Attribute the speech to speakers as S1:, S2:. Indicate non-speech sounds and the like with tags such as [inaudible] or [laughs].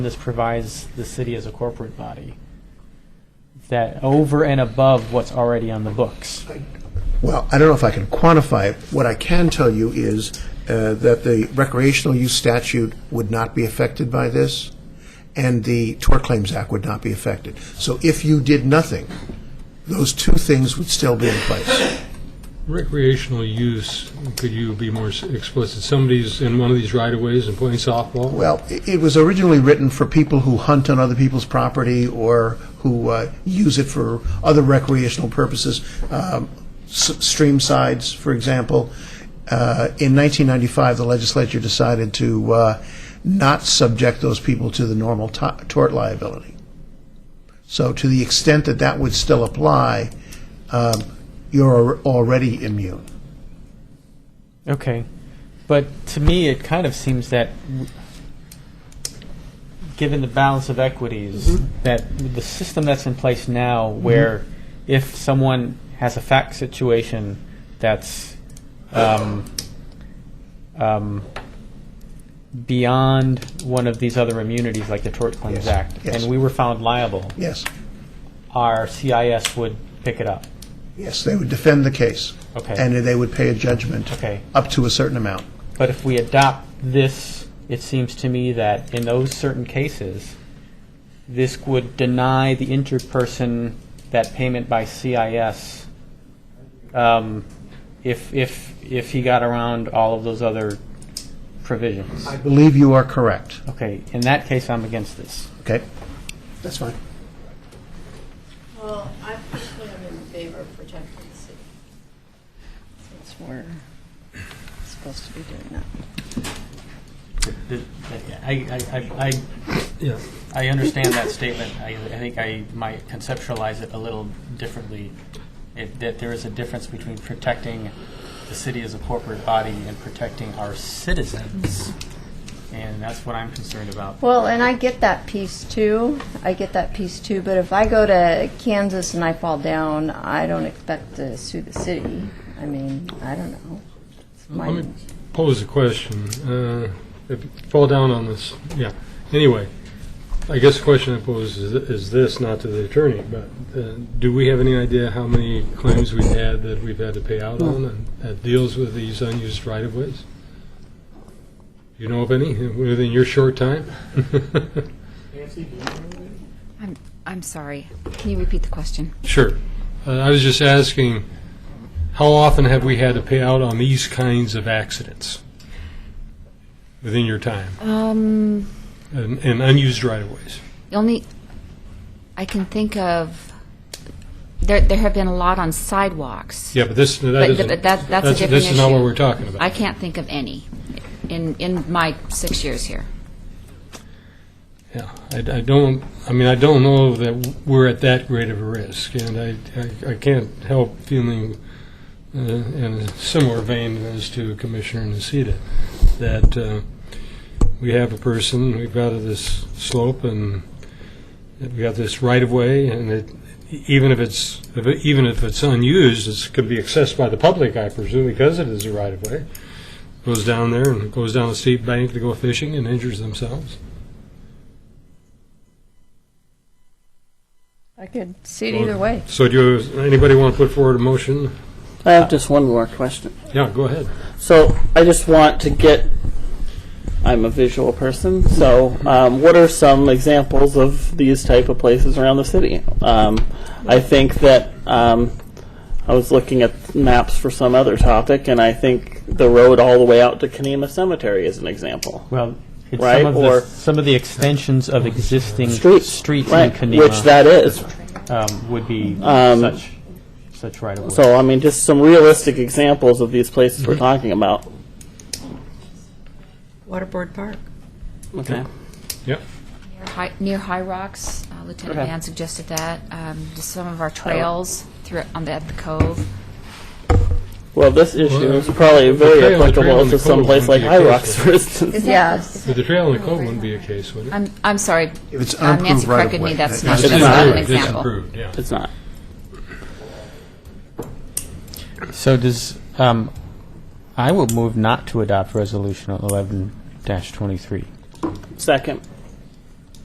S1: This provides the city as a corporate body that over and above what's already on the books.
S2: Well, I don't know if I can quantify it. What I can tell you is uh, that the recreational use statute would not be affected by this, and the Tort Claims Act would not be affected. So if you did nothing, those two things would still be in place.
S3: Recreational use, could you be more s- explicit? Somebody's in one of these right-of-ways and playing softball?
S2: Well, i- it was originally written for people who hunt on other people's property or who uh, use it for other recreational purposes, um, s- stream sides, for example. Uh, In 1995, the legislature decided to uh, not subject those people to the normal to- tort liability. So to the extent that that would still apply, um, you're al- already immune.
S1: Okay. But to me, it kind of seems that, w- given the balance of equities,
S2: Mm-hmm.
S1: that the system that's in place now, where if someone has a fact situation that's um, um, beyond one of these other immunities, like the Tort Claims
S2: Yes.
S1: Act,
S2: Yes.
S1: and we were found liable,
S2: Yes,
S1: our CIS would pick it up.
S2: yes, they would defend the case.
S1: Okay.
S2: And they would pay a judgment.
S1: Okay.
S2: Up to a certain amount.
S1: But if we adopt this, it seems to me that in those certain cases, this would deny the injured person that payment by CIS um, if, if, if he got around all of those other provisions.
S2: I believe you are correct.
S1: Okay, in that case, I'm against this.
S2: Okay? That's fine.
S4: Well, I personally am in favor of protecting the city, since we're supposed to be doing that.
S1: The- I, I, I-
S3: Yeah.
S1: I, I understand that statement. I, I think I might conceptualize it a little differently. It, that there is a difference between protecting the city as a corporate body and protecting our citizens. And that's what I'm concerned about.
S4: Well, and I get that piece too. I get that piece too, but if I go to Kansas and I fall down, I don't expect to sue the city. I mean, I don't know. It's
S3: Let me
S4: my,
S3: pose a question. Uh, If you fall down on this, yeah. Anyway, I guess the question I pose is is this, not to the attorney, but uh, do we have any idea how many claims we've had that we've had to pay out on and that deals with these unused right-of-ways? You know of any within your short time? [laughs]
S5: I'm, I'm sorry. Can you repeat the question?
S3: Sure. Uh, I was just asking, how often have we had to pay out on these kinds of accidents within your time
S5: Um,
S3: and, and unused right-of-ways?
S5: the only I can think of there there have been a lot on sidewalks.
S3: Yeah, but this, that
S5: But-
S3: isn't.
S5: but that- that's a different
S3: This is not what
S5: issue.
S3: we're talking about.
S5: I can't think of any in in my six years here.
S3: Yeah, I, I don't, I mean, I don't know that we're at that great of a risk, and I, I, I can't help feeling uh, in a similar vein as to Commissioner Nocita, that uh, we have a person, we've got this slope, and we've got this right-of-way, and it, even if it's, if it- even if it's unused, it's, could be accessed by the public, I presume, because it is a right-of-way, goes down there and goes down a steep bank to go fishing and injures themselves.
S4: I could see it either way.
S3: So do you, anybody want to put forward a motion?
S6: I have just one more question.
S3: Yeah, go ahead.
S6: So I just want to get. I'm a visual person, so um, what are some examples of these type of places around the city? Um, I think that um, I was looking at maps for some other topic, and I think the road all the way out to Kanema Cemetery is an example.
S1: Well, it's
S6: Right,
S1: some of
S6: or-
S1: the, some of the extensions of existing
S6: Street,
S1: streets in
S6: right, which
S1: Kanema
S6: that is.
S1: um, would be
S6: Um,
S1: such, such right of way.
S6: So I mean, just some realistic examples of these places we're talking about.
S7: Waterboard Park.
S6: Okay.
S3: Yep.
S5: Near High, near High Rocks, uh, Lieutenant
S6: Okay.
S5: Van suggested that. Um, just some of our trails through on the, at the Cove.
S6: Well, this issue
S3: Well, uh,
S6: is probably
S3: the trail-
S6: very
S3: the trail in
S6: applicable
S3: the
S6: to some
S3: cove
S6: place like
S3: wouldn't be
S6: High Rocks,
S3: accessible.
S6: for instance.
S4: [laughs] Yeah,
S3: But the trail in the cove wouldn't be a case, would it?
S5: I'm I'm sorry.
S2: If it's
S5: uh, Nancy
S2: unapproved right
S5: corrected
S2: of
S5: me.
S2: way.
S5: That's not,
S6: It's
S5: that's
S6: not
S5: not an
S3: It's
S6: approved.
S5: example.
S3: approved, yeah.
S6: It's not.
S1: So does, um, I will move not to adopt resolution eleven twenty-three.
S6: Second.